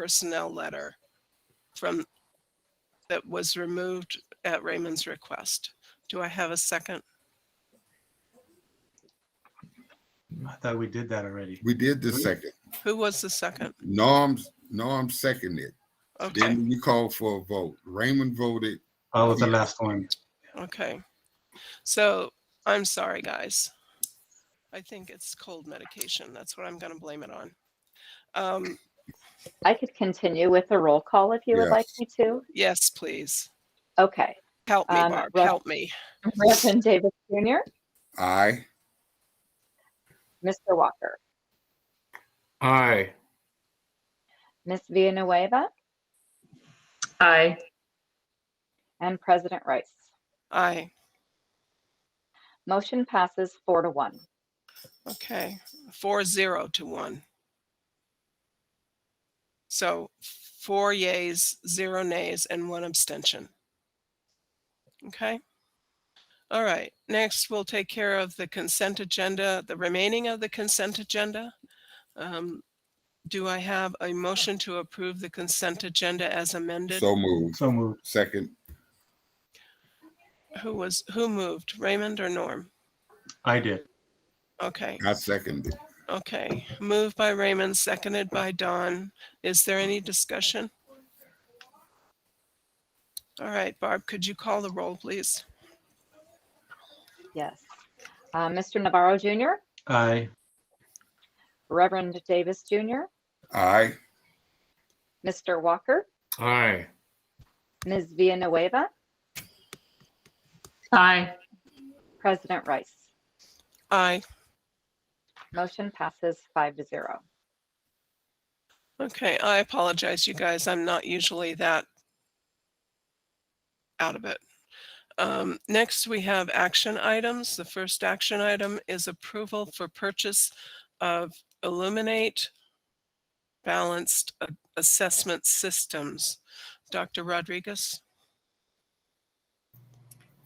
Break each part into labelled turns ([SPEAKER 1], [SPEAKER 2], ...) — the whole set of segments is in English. [SPEAKER 1] personnel letter from, that was removed at Raymond's request. Do I have a second?
[SPEAKER 2] I thought we did that already.
[SPEAKER 3] We did the second.
[SPEAKER 1] Who was the second?
[SPEAKER 3] Norm's, Norm seconded.
[SPEAKER 1] Okay,
[SPEAKER 3] Then you called for a vote. Raymond voted.
[SPEAKER 2] Oh, it was the last one.
[SPEAKER 1] okay. So I'm sorry, guys. I think it's cold medication. That's what I'm going to blame it on. Um,
[SPEAKER 4] I could continue with the roll call if you would
[SPEAKER 3] Yes.
[SPEAKER 4] like me to.
[SPEAKER 1] yes, please.
[SPEAKER 4] Okay.
[SPEAKER 1] Help me,
[SPEAKER 4] Um,
[SPEAKER 1] Barb,
[SPEAKER 4] Ro-
[SPEAKER 1] help me.
[SPEAKER 5] Mm-hmm.
[SPEAKER 4] Reverend Davis Jr.,
[SPEAKER 3] Aye.
[SPEAKER 4] Mr. Walker,
[SPEAKER 6] Aye.
[SPEAKER 4] Ms. Villanueva,
[SPEAKER 5] Aye.
[SPEAKER 4] and President Rice.
[SPEAKER 1] Aye,
[SPEAKER 4] Motion passes four to one.
[SPEAKER 1] okay. Four zero to one. So four yays, zero nays, and one abstention. Okay? All right, next we'll take care of the consent agenda, the remaining of the consent agenda. Um, Do I have a motion to approve the consent agenda as amended?
[SPEAKER 3] So moved.
[SPEAKER 2] So moved.
[SPEAKER 3] Second.
[SPEAKER 1] Who was, who moved, Raymond or Norm?
[SPEAKER 2] I did.
[SPEAKER 1] Okay.
[SPEAKER 3] I seconded.
[SPEAKER 1] Okay, moved by Raymond, seconded by Don. Is there any discussion? All right, Barb, could you call the roll, please?
[SPEAKER 4] Yes. Uh, Mr. Navarro Jr.,
[SPEAKER 2] Aye.
[SPEAKER 4] Reverend Davis Jr.,
[SPEAKER 3] Aye.
[SPEAKER 4] Mr. Walker,
[SPEAKER 6] Aye.
[SPEAKER 4] Ms. Villanueva,
[SPEAKER 5] Aye.
[SPEAKER 4] President Rice.
[SPEAKER 1] Aye.
[SPEAKER 4] Motion passes five to zero.
[SPEAKER 1] Okay, I apologize, you guys. I'm not usually that out of it. Um, next, we have action items. The first action item is approval for purchase of Illuminate Balanced A- Assessment Systems. Dr. Rodriguez?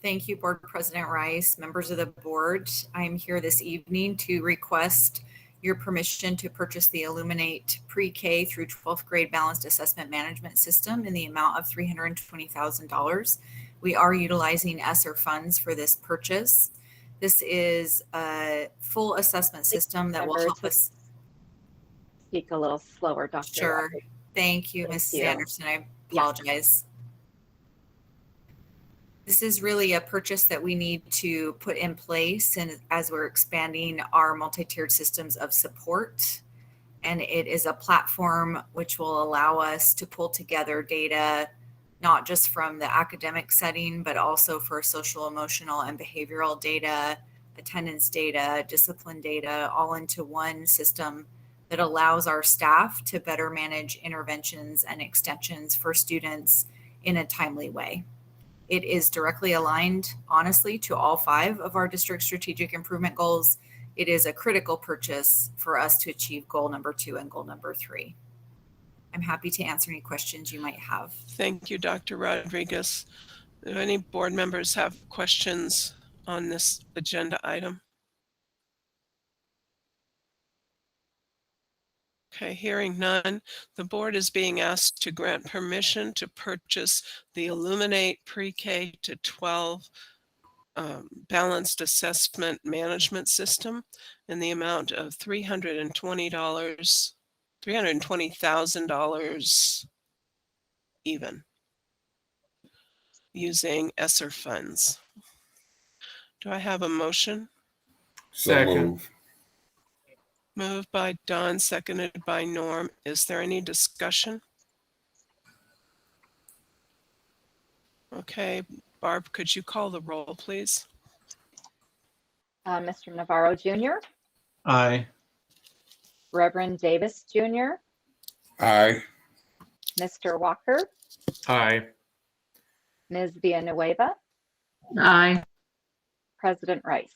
[SPEAKER 7] Thank you, Board President Rice, members of the board. I am here this evening to request your permission to purchase the Illuminate Pre-K through 12th grade balanced assessment management system in the amount of $320,000. We are utilizing ESSER funds for this purchase. This is a full assessment system that will
[SPEAKER 4] Members
[SPEAKER 7] help
[SPEAKER 4] with-
[SPEAKER 7] us.
[SPEAKER 4] Speak a little slower, Dr.
[SPEAKER 7] Sure.
[SPEAKER 4] Walker.
[SPEAKER 7] Thank you,
[SPEAKER 4] Thank
[SPEAKER 7] Mrs.
[SPEAKER 4] you.
[SPEAKER 7] Anderson. I apologize. This is really a purchase that we need to put in place and as we're expanding our multi-tiered systems of support. And it is a platform which will allow us to pull together data, not just from the academic setting, but also for social, emotional, and behavioral data, attendance data, discipline data, all into one system that allows our staff to better manage interventions and extensions for students in a timely way. It is directly aligned, honestly, to all five of our district strategic improvement goals. It is a critical purchase for us to achieve goal number two and goal number three. I'm happy to answer any questions you might have.
[SPEAKER 1] Thank you, Dr. Rodriguez. Do any board members have questions on this agenda item? Okay, hearing none, the board is being asked to grant permission to purchase the Illuminate Pre-K to 12 um, Balanced Assessment Management System in the amount of $320, $320,000 even using ESSER funds. Do I have a motion?
[SPEAKER 3] So
[SPEAKER 6] Second.
[SPEAKER 3] moved.
[SPEAKER 1] Moved by Don, seconded by Norm. Is there any discussion? Okay, Barb, could you call the roll, please?
[SPEAKER 4] Uh, Mr. Navarro Jr.,
[SPEAKER 2] Aye.
[SPEAKER 4] Reverend Davis Jr.,
[SPEAKER 3] Aye.
[SPEAKER 4] Mr. Walker,
[SPEAKER 6] Aye.
[SPEAKER 4] Ms. Villanueva,
[SPEAKER 5] Aye.
[SPEAKER 4] President Rice.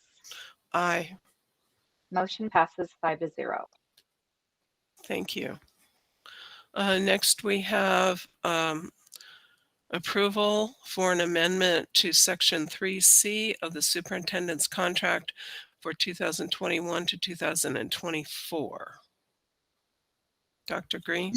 [SPEAKER 1] Aye,
[SPEAKER 4] Motion passes five to zero.
[SPEAKER 1] thank you. Uh, next, we have, um, approval for an amendment to section three C of the superintendent's contract for two thousand twenty-one to two thousand and twenty-four. Dr. Green?